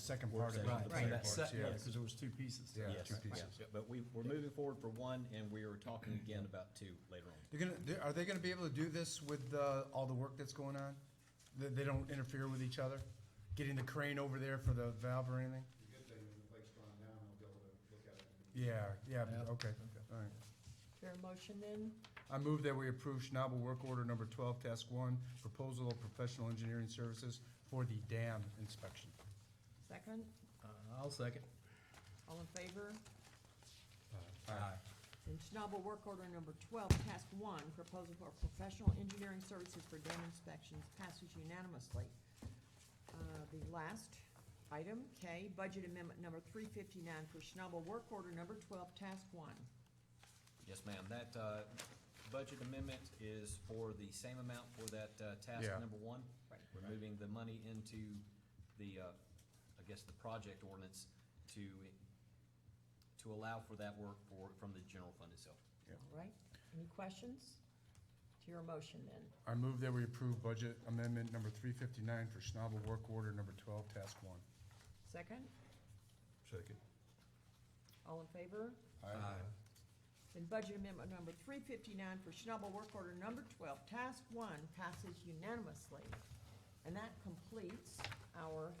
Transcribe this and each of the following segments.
second part Work of it. session. the Right, player right. parts, That's- yeah. yeah, 'cause there was two pieces. to Yeah, that. two Right, pieces. yeah. But we, we're moving forward for one, and we are talking again about two later on. They're gonna, they're- are they gonna be able to do this with, uh, all the work that's going on? That they don't interfere with each other? Getting the crane over there for the valve or anything? The good thing, when the lake's drawn down, I'll be able to look at it. Yeah, yeah, but- Yeah. okay, all right. There a motion then? I move that we approve Schnabel Work Order Number Twelve, Task One, Proposal of Professional Engineering Services for the dam inspection. Second, Uh, I'll second. all in favor? Aye. Then Schnabel Work Order Number Twelve, Task One, Proposal for Professional Engineering Services for Dam Inspections, passes unanimously. Uh, The last item, K, Budget Amendment Number three fifty-nine for Schnabel Work Order Number Twelve, Task One. Yes, ma'am. That, uh, budget amendment is for the same amount for that, uh, task Yeah. number one. Right. We're moving the money into the, uh, I guess, the project ordinance to, to allow for that work for, from the general fund itself. All right, any questions? To your motion then. I move that we approve Budget Amendment Number Three Fifty-nine for Schnabel Work Order Number Twelve, Task One. Second, Second. all in favor? Aye. Then budget amendment number three fifty-nine for Schnabel Work Order Number Twelve, Task One, passes unanimously. And that completes our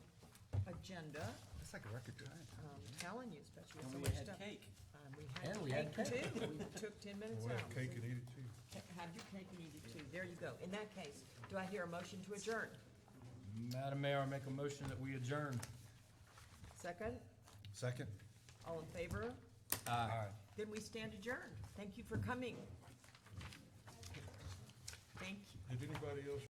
agenda. That's like a record time. I'm telling you, especially with so And much we had stuff. cake. Um, We And we had had cake too. We took ten minutes We'll out. have cake and eat it too. Ca- Have your cake and eat it too. There you go. In that case, do I hear a motion to adjourn? Madam Mayor, I make a motion that we adjourn. Second, Second? all in favor? Aye. Then we stand adjourned. Thank you for coming. Thank you. Did anybody else